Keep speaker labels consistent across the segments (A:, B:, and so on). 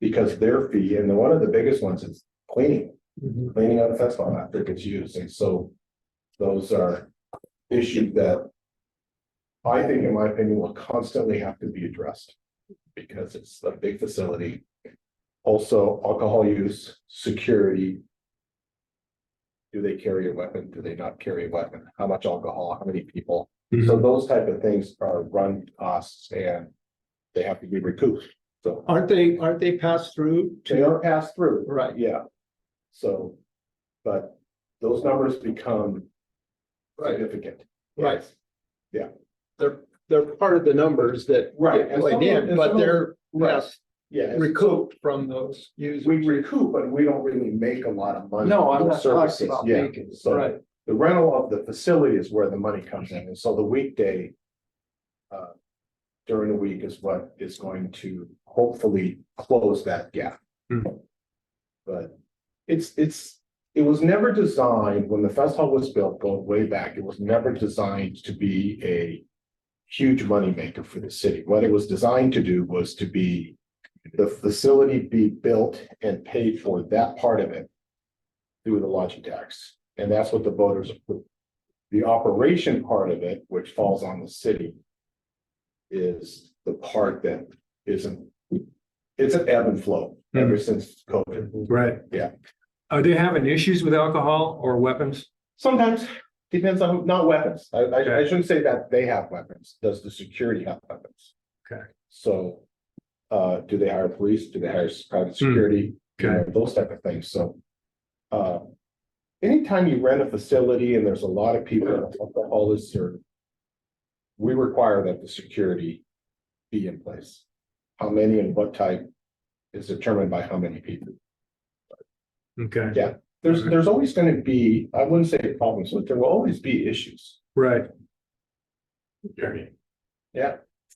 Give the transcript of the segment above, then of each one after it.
A: Because their fee, and one of the biggest ones is cleaning, cleaning out the fence line after it gets used, and so. Those are issues that. I think, in my opinion, will constantly have to be addressed. Because it's a big facility. Also, alcohol use, security. Do they carry a weapon? Do they not carry a weapon? How much alcohol? How many people?
B: Mm-hmm.
A: So those type of things are run costs and. They have to be recouped, so
B: Aren't they, aren't they passed through
A: they
B: to,
A: are passed through.
B: right,
A: Yeah. So, but those numbers become significant.
B: right?
A: Yeah.
B: They're, they're part of the numbers that.
A: Right,
B: get
A: and some
B: played
A: of-
B: in,
A: and some
B: But
A: of-
B: they're,
A: Right.
B: yes,
A: Yeah, and
B: recouped from those users.
A: we recoup, but we don't really make a lot of money.
B: No, I'm
A: from
B: not
A: services.
B: talking about
A: Yeah,
B: making,
A: so
B: right,
A: The rental of the facility is where the money comes in, and so the weekday. uh, During the week is what is going to hopefully close that gap.
B: Hmm.
A: But it's, it's, it was never designed, when the fest hall was built, going way back, it was never designed to be a. Huge moneymaker for the city, what it was designed to do was to be. The facility be built and paid for that part of it. Through the lodging tax. And that's what the voters approved. The operation part of it, which falls on the city. Is the part that isn't. It's an ebb and flow ever since COVID.
C: Right.
A: Yeah.
C: Are they having issues with alcohol or weapons?
A: Sometimes depends on, who- not weapons. I, I, I shouldn't say that they have weapons. Does the security have weapons?
C: Okay.
A: So. Uh, do they hire police? Do they hire s- private
C: Hmm.
A: security? You know, Those type of things, so. Uh. Anytime you rent a facility and there's a lot of people, alcohol is served. We require that the security be in place. How many and what type is determined by how many people.
C: Okay,
A: There's, there's always gonna be, I wouldn't say problems, but there will always be issues.
C: right.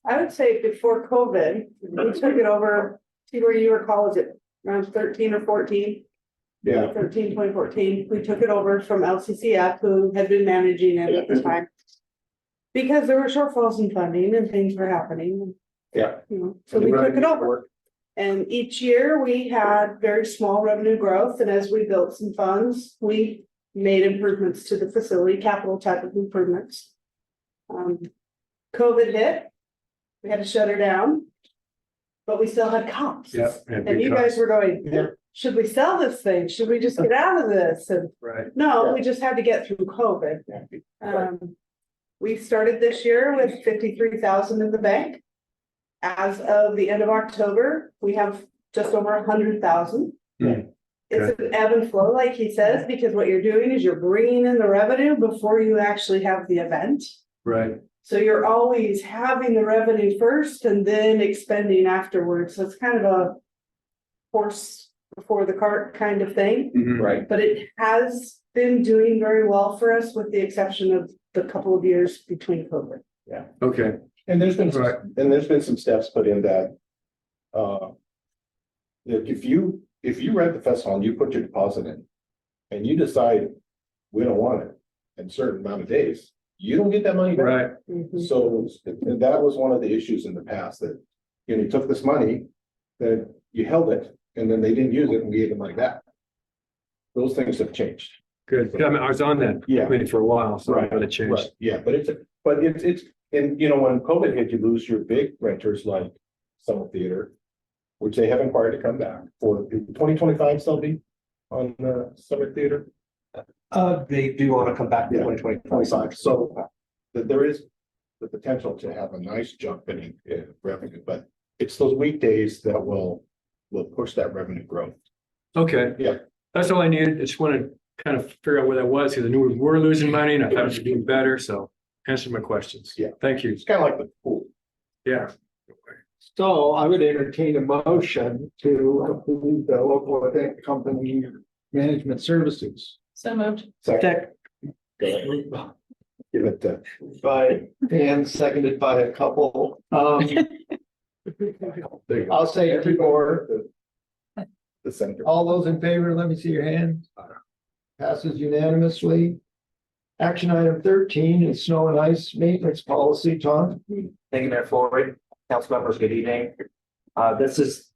D: I would say before COVID, we took it over, see where you were college at around thirteen or fourteen.
A: Yeah,
D: 13, 2014. we took it over from LCCF who had been managing it at the time. Because there were shortfalls in funding and things were happening,
A: yeah.
D: you know, so we took it over. And each year we had very small revenue growth and as we built some funds, we made improvements to the facility, capital type of improvements. Um, COVID hit. We had to shut her down. But we still had comps.
C: Yeah. and
D: And you guys were
A: Yeah.
D: going, should we sell this thing? Should we just get out of this? And
C: Right.
D: no, we just had to get through COVID.
A: Yeah.
D: Um, we started this year with fifty-three thousand in the bank. As of the end of October, we have just over a hundred thousand.
C: Hmm.
D: It's an ebb and flow, like he says, because what you're doing is you're bringing in the revenue before you actually have the event.
C: Right,
D: So you're always having the revenue first and then expending afterwards. So it's kind of a horse before the cart kind of thing.
E: Mm-hmm.
A: Right,
D: But it has been doing very well for us with the exception of the couple of years between COVID.
C: okay,
A: and there's been,
C: Right.
A: some- and there's been some steps put in that. Uh. That if you, if you rent the fest hall and you put your deposit in. And you decide, we don't want it, in a certain amount of days, you don't get that money back.
C: right,
A: Mm-hmm. So and that was one of the issues in the past that, you know, you took this money, that you held it, and then they didn't use it and gave it like that. Those things have changed.
C: good. Yeah, I mean, I was on that
A: Yeah.
C: committee for a while, so I'm
A: Right,
C: gonna change.
A: Right, yeah, but it's, but it's, it's, and you know, when COVID hit, you lose your big renters like Summer Theater. Which they have inquired to come back for twenty twenty-five, still be on the Summer Theater.
E: Uh, they do want to come back
A: Yeah.
E: in twenty twenty
A: twenty-five, so that there is the potential to have a nice jump in uh, revenue, but it's those weekdays that will, will push that revenue growth.
C: Okay.
A: Yeah.
C: That's all I needed. I just wanted to kind of figure out where that was, because I knew we were losing money and I thought we were doing better, so answer my questions.
A: Yeah.
C: Thank you.
A: It's kind of like the pool.
C: Yeah.
B: so I would entertain a motion to approve the local event company management services.
F: So moved.
A: Second,
E: Tech
A: go ahead, give it to,
E: by Dan, seconded by a couple. Um,
A: there you go,
E: I'll say two more.
A: the center.
E: All those in favor, let me see your hand. Passes unanimously. Action item thirteen is snow and ice maintenance policy, Tom.
G: Thank you, Mayor Floyd. Council members, good evening. Uh, this is